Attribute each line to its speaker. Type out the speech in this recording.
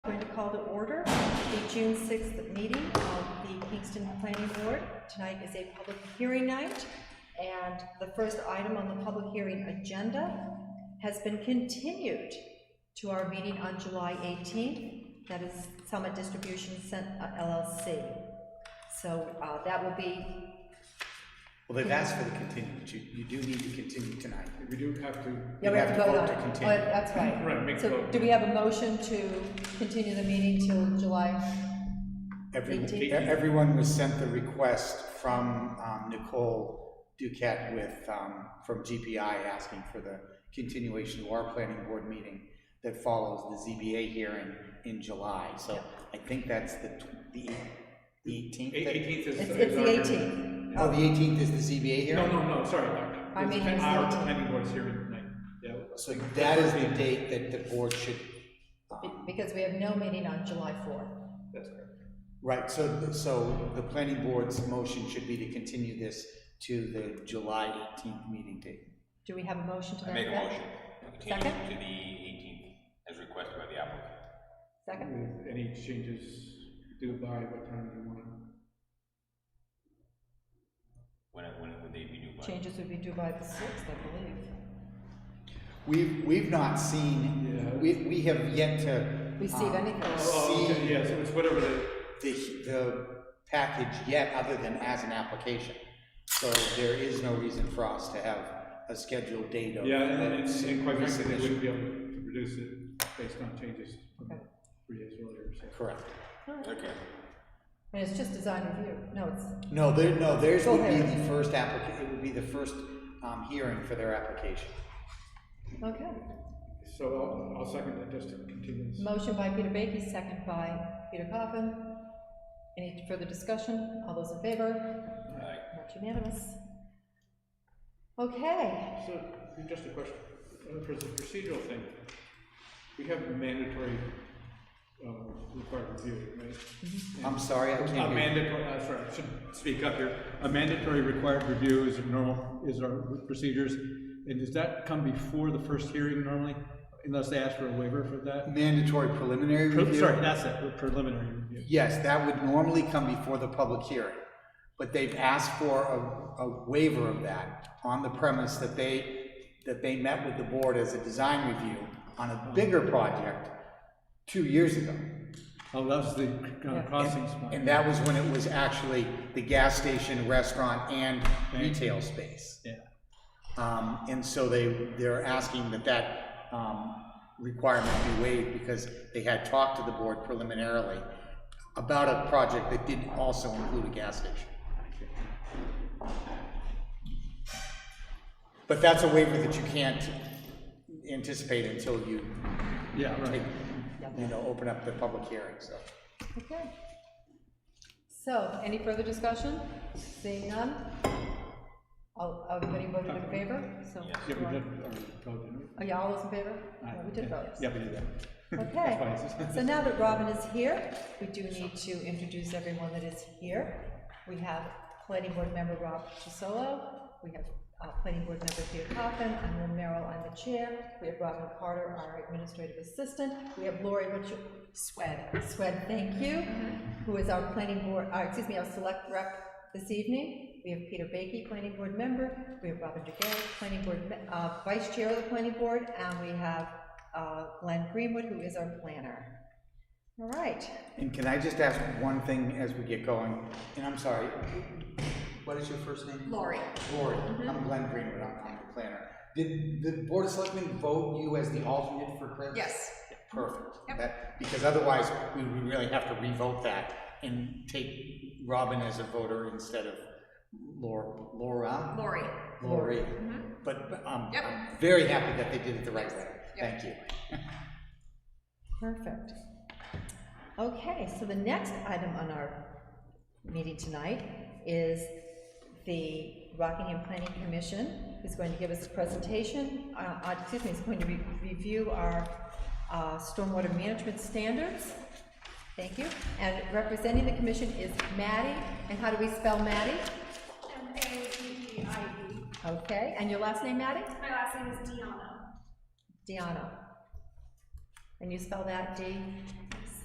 Speaker 1: June 6th meeting of the Kingston Planning Board. Tonight is a public hearing night, and the first item on the public hearing agenda has been continued to our meeting on July 18th. That is Summit Distribution Cent- uh, LLC. So uh, that will be
Speaker 2: Well, they've asked for the continuance, you, you do need to continue tonight.
Speaker 3: We do have to,
Speaker 1: Yeah, we have to vote on it.
Speaker 2: continue.
Speaker 1: Oh, That's right.
Speaker 3: Right, make
Speaker 1: So
Speaker 3: vote.
Speaker 1: do we have a motion to continue the meeting till July?
Speaker 2: Every-
Speaker 1: They did.
Speaker 2: e- Everyone was sent the request from um, Nicole Duquette with, um, from GPI asking for the continuation of our planning board meeting that follows the ZBA hearing in July, so I think that's the tw- the eighteenth.
Speaker 3: eighteenth is.
Speaker 1: It's
Speaker 3: is
Speaker 1: it's the
Speaker 3: our-
Speaker 1: 18th.
Speaker 2: Oh, the eighteenth is the ZBA
Speaker 3: No,
Speaker 2: hearing?
Speaker 3: no, no, sorry, no, no.
Speaker 1: Our
Speaker 3: It's
Speaker 1: meeting is
Speaker 3: Our
Speaker 1: the 18th.
Speaker 3: planning board's hearing tonight, yeah.
Speaker 2: So that is the date that the board should,
Speaker 1: be- because we have no meeting on July 4th.
Speaker 3: That's correct.
Speaker 2: right, so, so the planning board's motion should be to continue this to the July eighteenth meeting date.
Speaker 1: Do we have a motion to that?
Speaker 4: I make a
Speaker 1: effect?
Speaker 4: motion, to continue
Speaker 1: Second?
Speaker 4: to the eighteenth, as requested by the applicant.
Speaker 1: Second?
Speaker 3: With Any changes due by what time do you want?
Speaker 4: When, it- when it- would they be due by?
Speaker 1: Changes would be due by the 6th, I believe.
Speaker 2: We've, we've not seen,
Speaker 3: Yeah.
Speaker 2: we, we have yet to.
Speaker 1: Receive
Speaker 2: um,
Speaker 1: anything.
Speaker 3: Oh,
Speaker 2: See
Speaker 3: okay, yeah, so it's whatever the,
Speaker 2: the, the package yet, other than as an application. So there is no reason for us to have a scheduled date of.
Speaker 3: yeah, and, and-
Speaker 2: of
Speaker 3: and quite frankly, they
Speaker 2: resubmission.
Speaker 3: wouldn't be able to reduce it based on changes from
Speaker 1: Okay.
Speaker 3: three days earlier, so.
Speaker 2: Correct.
Speaker 4: Okay,
Speaker 1: And it's just design review. No, it's,
Speaker 2: No, there, no, theirs
Speaker 1: Go
Speaker 2: would be
Speaker 1: ahead.
Speaker 2: the first applica, it would be the first, um, hearing for their application.
Speaker 1: okay.
Speaker 3: So I'll, I'll second that, just to continue this.
Speaker 1: Motion by Peter Baiki, second by Peter Coffin. Any further discussion? All those in favor?
Speaker 4: alright,
Speaker 1: Not unanimous. Okay.
Speaker 3: So, just a question, uh, for the procedural thing, we have a mandatory, um, required review, right?
Speaker 1: Mm-hmm.
Speaker 2: I'm sorry, I
Speaker 3: A
Speaker 2: can't. hear you.
Speaker 3: mandatory, uh, sorry, I should speak up here. A mandatory required review is a normal, is our procedures. And does that come before the first hearing normally, unless they ask for a waiver for that?
Speaker 2: Mandatory preliminary
Speaker 3: Pre-
Speaker 2: review.
Speaker 3: Sorry, that's it, preliminary review.
Speaker 2: Yes, that would normally come before the public hearing, but they've asked for a, a waiver of that on the premise that they, that they met with the board as a design review on a bigger project two years ago.
Speaker 3: Oh, that was the uh, crossings
Speaker 2: And
Speaker 3: one.
Speaker 2: that was when it was actually the gas station, restaurant, and retail space.
Speaker 3: Yeah,
Speaker 2: Um, and so they, they're asking that that, um, requirement be waived because they had talked to the board preliminarily about a project that did also include a gas station. But that's a waiver that you can't anticipate until you,
Speaker 3: yeah, right.
Speaker 2: take- you know, open up the public hearing, so.
Speaker 1: Okay. So, any further discussion? Seeing none? All, everybody voted in favor, so.
Speaker 3: Yeah, we did, uh, vote, didn't we?
Speaker 1: Oh, yeah, all those in favor?
Speaker 3: Aye.
Speaker 1: Yeah, We did vote.
Speaker 3: Yeah, we did that.
Speaker 1: Okay,
Speaker 3: That's why it's-
Speaker 1: so now that Robin is here, we do need to introduce everyone that is here. We have planning board member Rob Chisolo, we have uh, planning board member Peter Coffin, I'm Lynn Merrill, I'm the chair, we have Robin Carter, our administrative assistant, we have Lori Richard. Swed. Swed, thank you, who is our planning board, uh, excuse me, our select rep this evening. We have Peter Baiki, planning board member, we have Robin DeGale, planning board, me- uh, vice chair of the planning board, and we have uh, Glenn Greenwood, who is our planner. All right,
Speaker 2: And can I just ask one thing as we get going? And I'm sorry, what is your first name?
Speaker 1: Lori.
Speaker 2: Lori,
Speaker 5: Mm-hmm.
Speaker 2: I'm Glenn Greenwood, I'm, I'm the planner. Did the Board of Selectmen vote you as the alternate for Chris?
Speaker 5: Yes.
Speaker 2: Perfect.
Speaker 5: Yep.
Speaker 2: That- Because otherwise, we would really have to revote that and take Robin as a voter instead of Laura, Laura?
Speaker 5: Lori.
Speaker 2: Lori.
Speaker 5: Mhm.
Speaker 2: But, but I'm,
Speaker 5: Yep.
Speaker 2: I'm very happy that they did it the right way.
Speaker 5: Yep.
Speaker 2: Thank you.
Speaker 1: Perfect. Okay, so the next item on our meeting tonight is the Rockingham Planning Commission is going to give us a presentation, uh, uh, excuse me, is going to re- review our uh, stormwater management standards. Thank you. And representing the commission is Maddie, and how do we spell Maddie?
Speaker 6: M A D D I E.
Speaker 1: Okay, and your last name, Maddie?
Speaker 6: My last name is Deanna.
Speaker 1: Deanna. And you spell that D?